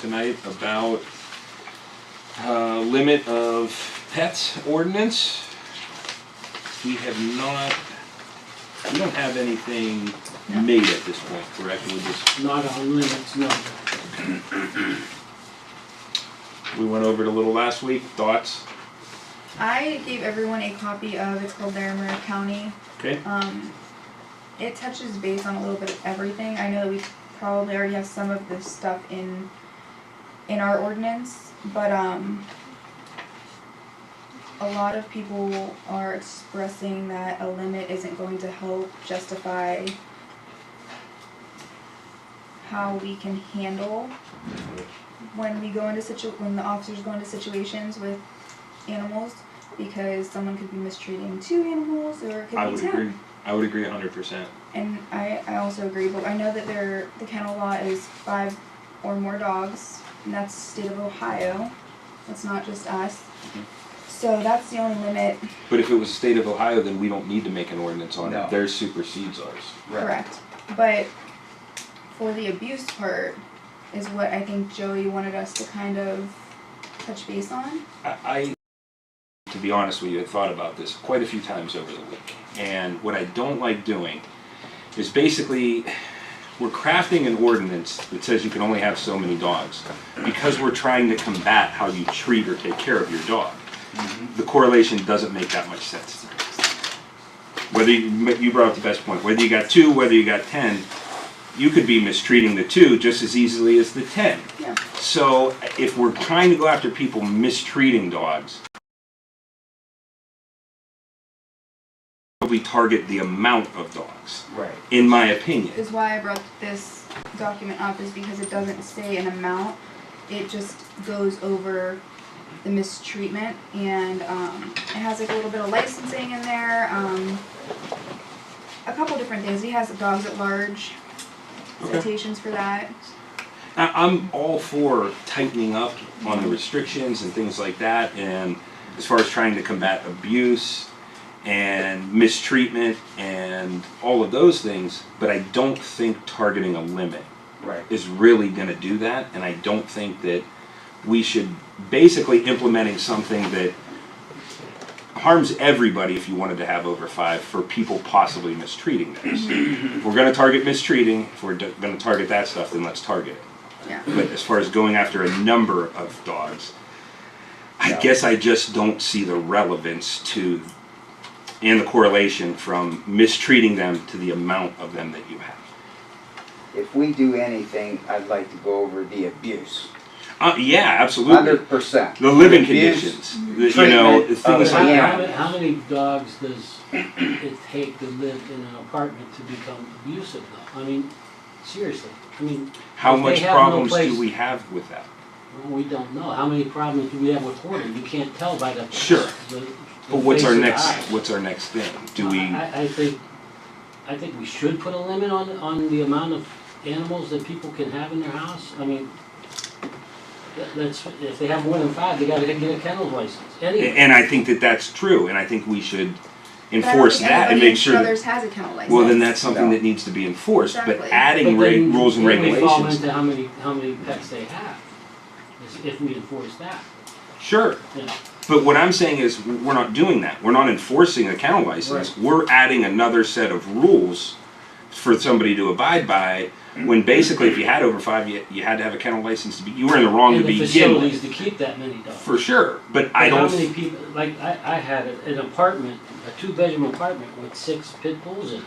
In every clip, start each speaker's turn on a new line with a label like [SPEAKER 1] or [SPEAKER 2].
[SPEAKER 1] tonight about uh, limit of pets ordinance. We have not, we don't have anything made at this point, correct? We just,
[SPEAKER 2] Not on limits, no.
[SPEAKER 1] we went over it a little last week, thoughts,
[SPEAKER 3] I gave everyone a copy of it's called Larimer County.
[SPEAKER 1] okay?
[SPEAKER 3] Um, it touches base on a little bit of everything. I know that we probably already have some of this stuff in in our ordinance, but um, a lot of people are expressing that a limit isn't going to help justify how we can handle when we go into situ when the officers go into situations with animals because someone could be mistreating two animals or it could
[SPEAKER 1] I
[SPEAKER 3] be
[SPEAKER 1] would
[SPEAKER 3] ten.
[SPEAKER 1] agree, I would agree a hundred percent.
[SPEAKER 3] And I, I also agree, but I know that there the kennel law is five or more dogs, and that's state of Ohio. That's not just us. So that's the only limit,
[SPEAKER 1] But if it was the state of Ohio, then we don't need to make an ordinance on
[SPEAKER 4] No.
[SPEAKER 1] it, theirs supersedes ours.
[SPEAKER 3] correct? But for the abuse part is what I think Joey wanted us to kind of touch base on.
[SPEAKER 1] I, I, to be honest with you, had thought about this quite a few times over the week. And what I don't like doing is basically we're crafting an ordinance that says you can only have so many dogs because we're trying to combat how you treat or take care of your dog. The correlation doesn't make that much sense. Whether you, you brought up the best point, whether you got two, whether you got ten, you could be mistreating the two just as easily as the ten.
[SPEAKER 3] Yeah.
[SPEAKER 1] So if we're trying to go after people mistreating dogs, we target the amount of dogs,
[SPEAKER 4] Right.
[SPEAKER 1] in my opinion.
[SPEAKER 3] Is why I brought this document up is because it doesn't say an amount. It just goes over the mistreatment and um, it has like a little bit of licensing in there. Um, a couple different things. He has dogs at large.
[SPEAKER 1] Okay.
[SPEAKER 3] Citations for that.
[SPEAKER 1] I- I'm all for tightening up on the restrictions and things like that, and as far as trying to combat abuse and mistreatment and all of those things, but I don't think targeting a limit
[SPEAKER 4] Right.
[SPEAKER 1] is really going to do that, and I don't think that we should basically implementing something that harms everybody if you wanted to have over five for people possibly mistreating theirs. if we're going to target mistreating, if we're going to target that stuff, then let's target it.
[SPEAKER 3] Yeah.
[SPEAKER 1] But as far as going after a number of dogs, I
[SPEAKER 4] Yeah.
[SPEAKER 1] guess I just don't see the relevance to and the correlation from mistreating them to the amount of them that you have.
[SPEAKER 4] If we do anything, I'd like to go over the abuse.
[SPEAKER 1] Uh, yeah, absolutely.
[SPEAKER 4] Hundred percent.
[SPEAKER 1] the living
[SPEAKER 4] Abuse.
[SPEAKER 1] conditions, the- you know,
[SPEAKER 4] treatment
[SPEAKER 2] How,
[SPEAKER 1] things
[SPEAKER 4] of the
[SPEAKER 1] like
[SPEAKER 2] how
[SPEAKER 1] that.
[SPEAKER 2] many- how many dogs does it take to live in an apartment to become abusive though? I mean, seriously, I mean,
[SPEAKER 1] How
[SPEAKER 2] If they
[SPEAKER 1] much
[SPEAKER 2] have no
[SPEAKER 1] problems do
[SPEAKER 2] place-
[SPEAKER 1] we have with that?
[SPEAKER 2] we don't know. How many problems do we have with hoarding? You can't tell by the.
[SPEAKER 1] Sure.
[SPEAKER 2] the- the
[SPEAKER 1] But what's our
[SPEAKER 2] face of the
[SPEAKER 1] next?
[SPEAKER 2] eyes.
[SPEAKER 1] What's our next thing? Do
[SPEAKER 2] I-
[SPEAKER 1] we?
[SPEAKER 2] I, I think, I think we should put a limit on, on the amount of animals that people can have in their house. I mean, that- that's, if they have more than five, they gotta get a kennel license, anyway.
[SPEAKER 1] And I think that that's true, and I think we should
[SPEAKER 3] But I don't
[SPEAKER 1] enforce
[SPEAKER 3] think
[SPEAKER 1] that and
[SPEAKER 3] anybody in
[SPEAKER 1] make sure. that-
[SPEAKER 3] Struthers has a kennel license.
[SPEAKER 1] Well, then that's something
[SPEAKER 4] No.
[SPEAKER 1] that needs to be enforced. But
[SPEAKER 3] Exactly.
[SPEAKER 1] adding
[SPEAKER 2] But then-
[SPEAKER 1] reg- rules and
[SPEAKER 2] then we fall
[SPEAKER 1] regulations,
[SPEAKER 2] into how many, how many pets they have, is if we enforce that,
[SPEAKER 1] sure.
[SPEAKER 2] you know.
[SPEAKER 1] But what I'm saying is, w- we're not doing that. We're not enforcing a kennel license. We're adding another set of rules for somebody to abide by. When basically, if you had over five, you, you had to have a kennel license to be. You were in the wrong to
[SPEAKER 2] And the
[SPEAKER 1] begin with.
[SPEAKER 2] facilities to keep that many dogs.
[SPEAKER 1] For sure, but I
[SPEAKER 2] How
[SPEAKER 1] don't.
[SPEAKER 2] many people, like, I, I had a- an apartment, a two-bedroom apartment with six pit bulls in it.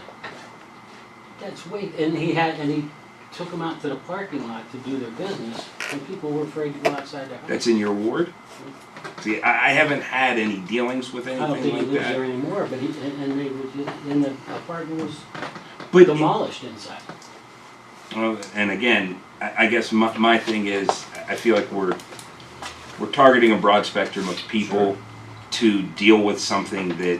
[SPEAKER 2] That's way, and he had, and he took them out to the parking lot to do their business, and people were afraid to go outside their house.
[SPEAKER 1] That's in your ward. See, I, I haven't had any dealings with
[SPEAKER 2] I don't
[SPEAKER 1] anything
[SPEAKER 2] think he
[SPEAKER 1] like
[SPEAKER 2] lives there
[SPEAKER 1] that.
[SPEAKER 2] anymore, but he, and, and they would, and the apartment was
[SPEAKER 1] But
[SPEAKER 2] demolished inside.
[SPEAKER 1] well, Oh, and again, I, I guess my, my thing is, I feel like we're we're targeting a broad spectrum of people to deal with something that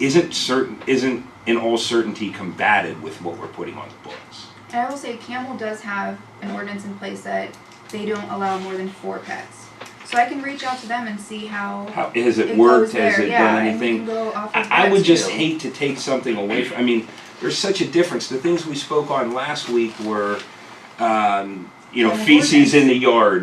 [SPEAKER 1] isn't certain, isn't in all certainty combated with what we're putting on the books.
[SPEAKER 3] And I will say Camel does have an ordinance in place that they don't allow more than four pets. So I can reach out to them and see how
[SPEAKER 1] How has it,
[SPEAKER 3] it
[SPEAKER 1] worked?
[SPEAKER 3] goes there.
[SPEAKER 1] Has it
[SPEAKER 3] yeah,
[SPEAKER 1] done
[SPEAKER 3] and we
[SPEAKER 1] anything?
[SPEAKER 3] can go off of
[SPEAKER 1] I, I
[SPEAKER 3] that
[SPEAKER 1] would just
[SPEAKER 3] too.
[SPEAKER 1] hate to take something away from. I mean, there's such a difference. The things we spoke on last week were, um, you know,
[SPEAKER 3] And the
[SPEAKER 1] feces in
[SPEAKER 3] ordinance.
[SPEAKER 1] the yard,